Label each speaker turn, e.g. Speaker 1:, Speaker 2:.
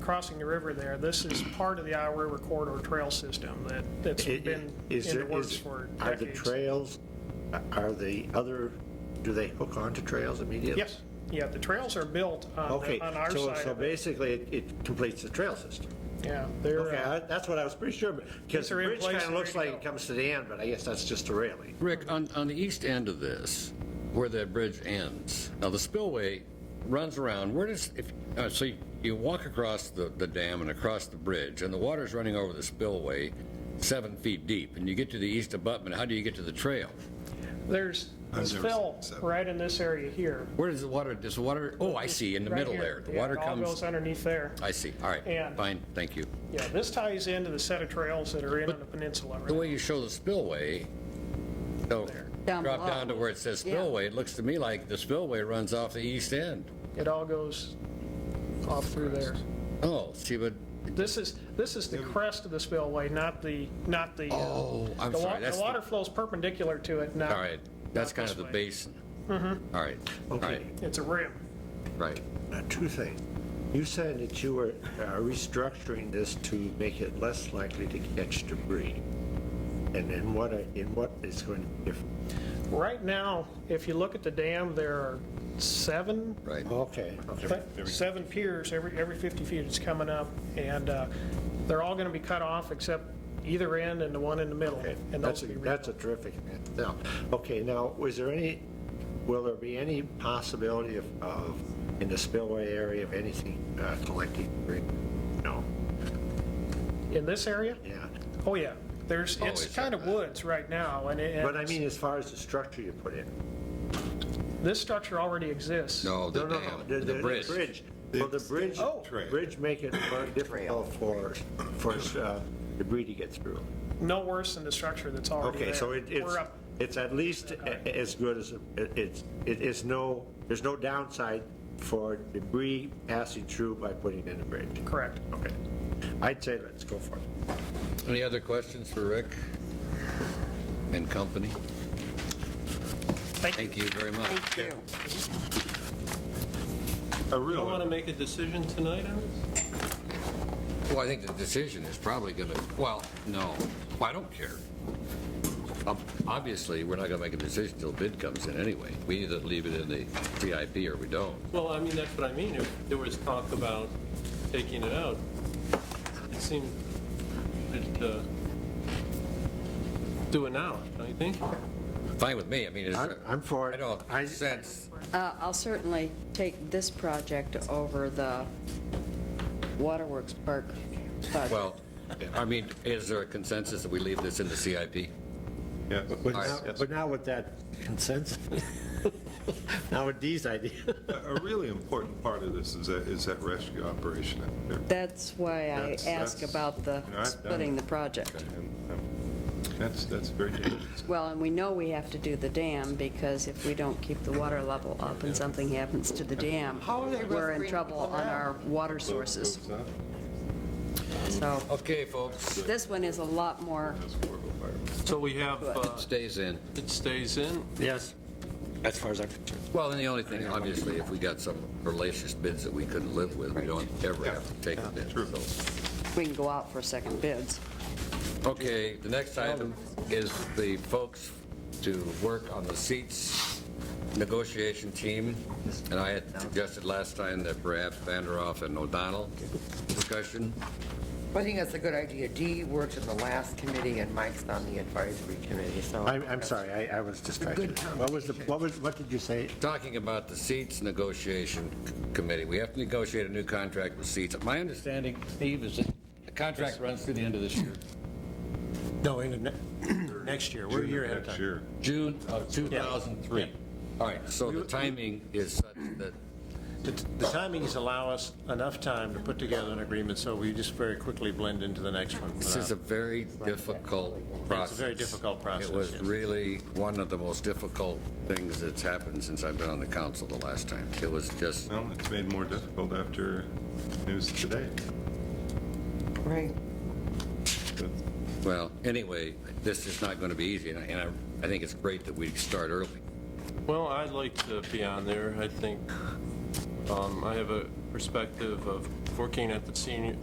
Speaker 1: crossing the river there, this is part of the Iowa River Corridor Trail System that, that's
Speaker 2: I- i-
Speaker 1: been in
Speaker 2: is
Speaker 1: the
Speaker 2: there-
Speaker 1: works
Speaker 2: is-
Speaker 1: for
Speaker 2: Are the
Speaker 1: decades.
Speaker 2: trails, are the other, do they hook onto trails immediately?
Speaker 1: Yes, yeah, the trails are built on,
Speaker 2: Okay,
Speaker 1: the- on our
Speaker 2: so,
Speaker 1: side
Speaker 2: so
Speaker 1: of it.
Speaker 2: basically it- it completes the trail system.
Speaker 1: Yeah, they're,
Speaker 2: Okay,
Speaker 1: uh,
Speaker 2: I- that's what I was pretty sure, because the
Speaker 1: are in
Speaker 2: bridge
Speaker 1: place
Speaker 2: kind of
Speaker 1: and
Speaker 2: looks
Speaker 1: ready to
Speaker 2: like it
Speaker 1: go.
Speaker 2: comes to the end, but I guess that's just a railing.
Speaker 3: Rick, on, on the east end of this, where that bridge ends, now the spillway runs around, where does, if, uh, so you- you walk across the, the dam and across the bridge, and the water's running over the spillway seven feet deep, and you get to the east abutment, how do you get to the trail?
Speaker 1: there's, there's
Speaker 4: Under
Speaker 1: fill
Speaker 4: seven.
Speaker 1: right in this area here.
Speaker 3: Where does the water, does the water, oh, I see, in the
Speaker 1: right
Speaker 3: middle
Speaker 1: here.
Speaker 3: there, the
Speaker 1: Yeah,
Speaker 3: water
Speaker 1: it All goes
Speaker 3: comes,
Speaker 1: underneath there.
Speaker 3: I see, all right,
Speaker 1: And-
Speaker 3: fine, thank you.
Speaker 1: Yeah, this ties into the set of trails that are in on the peninsula,
Speaker 3: The
Speaker 1: right?
Speaker 3: way you show the spillway, so
Speaker 5: Down
Speaker 3: drop
Speaker 5: below.
Speaker 3: down to where it says
Speaker 5: Yeah.
Speaker 3: spillway, it looks to me like the spillway runs off the east end.
Speaker 1: It all goes off through there.
Speaker 3: Oh, see, but
Speaker 1: This is, this is the crest of the spillway, not the, not the. uh,
Speaker 3: Oh, I'm
Speaker 1: the wa-
Speaker 3: sorry, that's
Speaker 1: The
Speaker 3: the-
Speaker 1: water flows perpendicular to it, not.
Speaker 3: All right, that's
Speaker 1: not
Speaker 3: kind
Speaker 1: this
Speaker 3: of the
Speaker 1: way.
Speaker 3: basin.
Speaker 1: Mm-hmm.
Speaker 3: All right, all
Speaker 2: Okay,
Speaker 3: right,
Speaker 1: It's a rim.
Speaker 3: right.
Speaker 2: now two things. You said that you were uh, restructuring this to make it less likely to catch debris. And in what, I- in what is going to be different?
Speaker 1: Right now, if you look at the dam, there are seven
Speaker 3: Right.
Speaker 2: Okay, okay.
Speaker 1: seven piers every, every 50 feet it's coming up, and uh, they're all going to be cut off except either end and the one in the middle.
Speaker 2: Okay,
Speaker 1: And
Speaker 2: That's,
Speaker 1: those
Speaker 2: a-
Speaker 1: will be
Speaker 2: that's a terrific, now, okay, now, was there any, will there be any possibility of, of, in the spillway area of anything uh, collecting? debris? No,
Speaker 1: in this area?
Speaker 2: yeah.
Speaker 1: Oh, yeah. There's,
Speaker 3: Oh,
Speaker 1: it's
Speaker 3: it's
Speaker 1: kind of
Speaker 3: like
Speaker 1: woods right now, and it. and
Speaker 2: But I mean, as far as the structure you put in?
Speaker 1: This structure already exists.
Speaker 3: No, the
Speaker 2: No, no, no,
Speaker 3: dam, the bridge.
Speaker 2: Will the bridge,
Speaker 1: Oh.
Speaker 2: bridge make it more difficult for, for uh, debris to get through?
Speaker 1: No worse than the structure that's already there.
Speaker 2: Okay, so it- it's,
Speaker 1: We're up,
Speaker 2: it's at least a- a- as good as, it- it's, it is no, there's no downside for debris passing through by putting in a bridge.
Speaker 1: correct.
Speaker 2: Okay. I'd say let's go for it.
Speaker 3: Any other questions for Rick and company?
Speaker 1: Thank you.
Speaker 3: Thank you very much.
Speaker 5: Thank you.
Speaker 4: A
Speaker 6: Don't want to
Speaker 4: real,
Speaker 6: make a decision tonight on this?
Speaker 3: Well, I think the decision is probably going to, well, no, Well, I don't care. Ob- Obviously, we're not going to make a decision until bid comes in anyway. We either leave it in the CIP or we don't.
Speaker 6: Well, I mean, that's what I mean. If there was talk about taking it out, it seemed that, uh, do it now, don't you think?
Speaker 3: Fine with me, I mean, it's.
Speaker 2: I'm- I'm for it.
Speaker 3: I don't sense,
Speaker 5: Uh, I'll certainly take this project over the Waterworks Park project.
Speaker 3: well, I mean, is there a consensus that we leave this in the CIP?
Speaker 4: yes.
Speaker 3: right.
Speaker 2: But now with that consensus, now with these ideas.
Speaker 4: A really important part of this is that, is that rescue operation out there.
Speaker 5: That's why I
Speaker 4: That's-
Speaker 5: asked
Speaker 4: that's-
Speaker 5: about the
Speaker 4: you know, I've done
Speaker 5: splitting the project.
Speaker 4: And, um, That's, that's very dangerous.
Speaker 5: Well, and we know we have to do the dam, because if we don't keep the water level up and something happens to the dam, we're in trouble on our water sources.
Speaker 4: Goes up,
Speaker 5: So
Speaker 3: Okay, folks,
Speaker 5: this one is a lot more,
Speaker 4: that's horrible fire.
Speaker 6: So we have, uh,
Speaker 3: stays in.
Speaker 6: it stays in.
Speaker 2: Yes, as far as I'm concerned.
Speaker 3: Well, and the only thing, obviously, if we got some hellacious bids that we couldn't live with, we don't ever have to take a bid. so.
Speaker 5: we can go out for second bids.
Speaker 3: Okay, the next item is the folks to work on the seats negotiation team. And I had suggested last time that perhaps Vanderoff and O'Donnell discussion.
Speaker 7: I think that's a good idea. Dee works in the last committee and Mike's on the advisory committee, so.
Speaker 2: I'm, I'm sorry, I, I was distracted. What was the, what was, what did you say?
Speaker 3: Talking about the seats negotiation c- committee, we have to negotiate a new contract with seats. My understanding, Steve, is that the contract runs through the end of this year.
Speaker 8: No, in the ne- next year, we're a
Speaker 4: June
Speaker 8: year
Speaker 4: of
Speaker 8: ahead of
Speaker 4: next
Speaker 8: time.
Speaker 4: year.
Speaker 3: June of 2003. All right, so the timing is such that,
Speaker 8: The the timings allow us enough time to put together an agreement, so we just very quickly blend into the next one.
Speaker 3: this is a very difficult process.
Speaker 8: very difficult process,
Speaker 3: It was
Speaker 8: yes.
Speaker 3: really one of the most difficult things that's happened since I've been on the council the last time. It was just,
Speaker 4: Well, it's made more difficult after news today.
Speaker 7: Right.
Speaker 4: But
Speaker 3: well, anyway, this is not going to be easy, and I- and I, I think it's great that we start early.
Speaker 6: Well, I'd like to be on there, I think. Um, I have a perspective of working at the senior,